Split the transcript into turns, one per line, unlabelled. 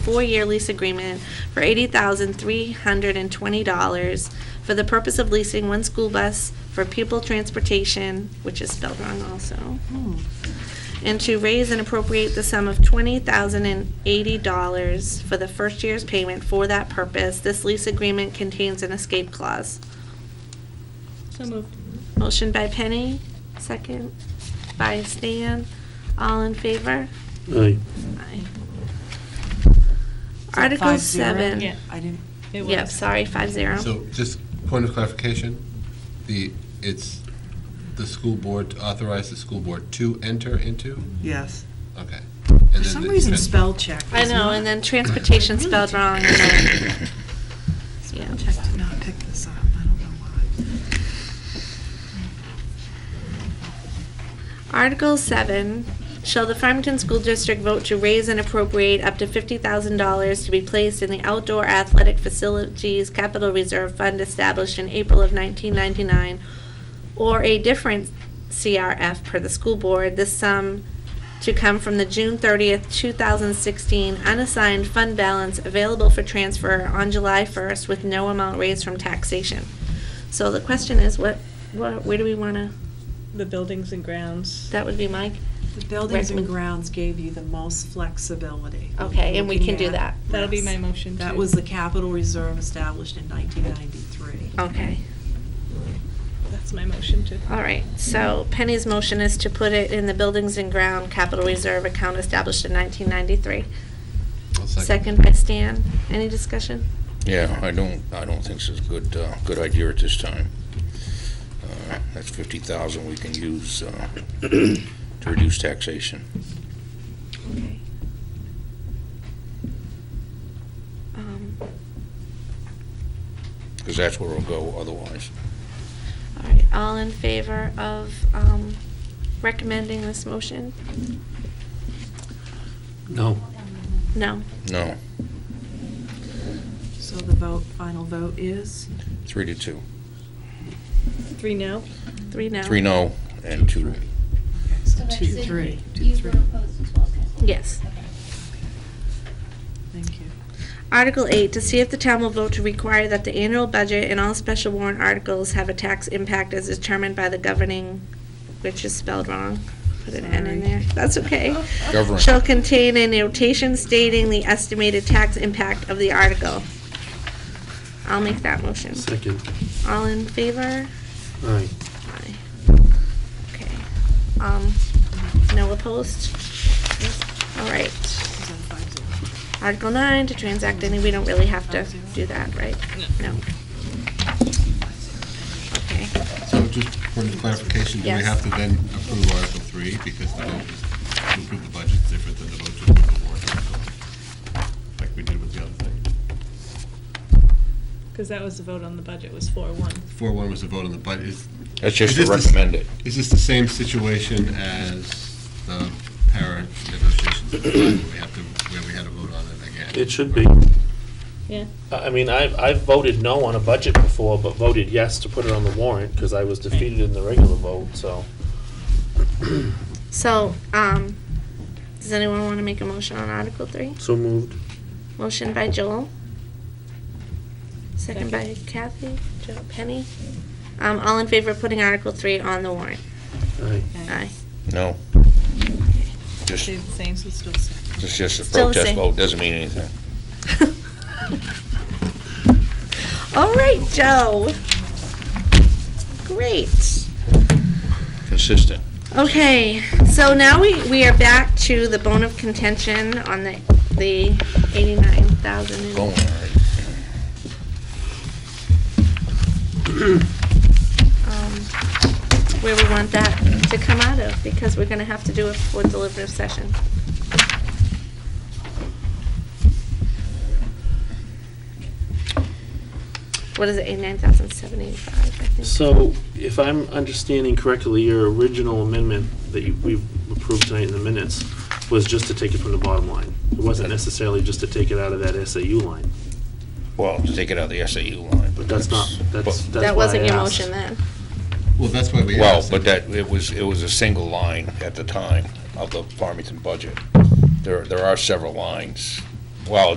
four-year lease agreement for $80,320 for the purpose of leasing one school bus for pupil transportation, which is spelled wrong also, and to raise and appropriate the sum of $20,080 for the first year's payment for that purpose. This lease agreement contains an escape clause.
So moved.
Motion by Penny, second by Stan. All in favor?
Aye.
Aye.
that
Article
five zero?
seven.
Yeah.
I didn't,
It was.
Yep, sorry, five zero.
So just point of clarification, the, it's the school board, to authorize the school board to enter into?
yes.
Okay.
For some reason, spell check
I
was
know,
not-
and then transportation spelled wrong. and then- Yeah.
Spell check did not pick this up, I don't know why.
Article seven, shall the Farmington School District vote to raise and appropriate up to fifty thousand dollars to be placed in the outdoor athletic facilities capital reserve fund established in April of nineteen ninety-nine or a different CRF per the school board, this sum to come from the June thirtieth, two thousand sixteen unassigned fund balance available for transfer on July first with no amount raised from taxation. So the question is, what, what, where do we wanna,
The buildings and grounds.
that would be Mike?
The buildings and
Recommend-
grounds gave you the most flexibility.
Okay, and we can do
Looking at-
that.
That'll be
yes.
my motion,
That
too.
was the capital reserve established in 1993.
Okay,
That's my motion too.
all right. So Penny's motion is to put it in the Buildings and Ground Capital Reserve account established in 1993.
I'll
Second by Stan. Any discussion?
Yeah, I don't, I don't think this is a good, uh, good idea at this time. Uh, That's fifty thousand we can use uh, to reduce taxation.
Okay. Um,
Because that's where it'll go otherwise.
All right, all in favor of um, recommending this motion?
No.
No.
No,
So the vote, final vote is?
three to two.
Three no?
Three no.
Three no and two.
Okay, so
that's
two,
it.
three. Two,
You were
three.
opposed as well, Kathleen?
Yes.
Okay.
Thank you.
Article 8, to see if the town will vote to require that the annual budget and all special warrant articles have a tax impact as determined by the governing, which is spelled wrong. Put an N in there.
Sorry.
That's okay.
Governor.
Shall contain a notation stating the estimated tax impact of the article. I'll make that motion.
Second.
All in favor?
Aye.
Aye. Okay. Um, no opposed? All right.
Is that five zero?
Article nine, to transact any, we don't really have to do that, right? No. Okay.
So just point of clarification, do we
Yes.
have to then approve Article 3 because the vote is to approve the budget is different than the vote to approve the warrant article? Like we did with the other thing.
Because that was the vote on the budget was four one.
4-1 was a vote on the budget. Is-
That's just
Is this
to
the-
recommend it.
Is this the same situation as the parent negotiations at the time, where we have to, where we had to vote on it again?
It should be.
Yeah.
I I mean, I've, I've voted no on a budget before, but voted yes to put it on the warrant, because I was defeated in the regular vote, so.
So, um, does anyone want to make a motion on Article three?
So moved.
Motion by Joel. Second by Kathy, Jo- Penny. Um, all in favor of putting Article three on the warrant?
Aye.
Aye.
No. Just,
Stayed the same.
So still second.
it's just a
Still the
protest
same.
vote, doesn't mean anything.
All right, Joe. Great.
Consistent.
Okay, so now we, we are back to the bone of contention on the, the eighty-nine thousand.
Going all right.
um, Where we want that to come out of, because we're gonna have to do it for deliberative session. What is it, eighty-nine thousand seven eighty-five, I think?
So if I'm understanding correctly, your original amendment that you- we approved tonight in the minutes was just to take it from the bottom line. It wasn't necessarily just to take it out of that SAU line,
Well, to take it out of the SAU line.
but that's not, that's, that's
That
why I
wasn't your
asked.
motion then.
Well, that's why we
Well,
asked.
but that, it was, it was a single line at the time of the Farmington budget. There, there are several lines. Well,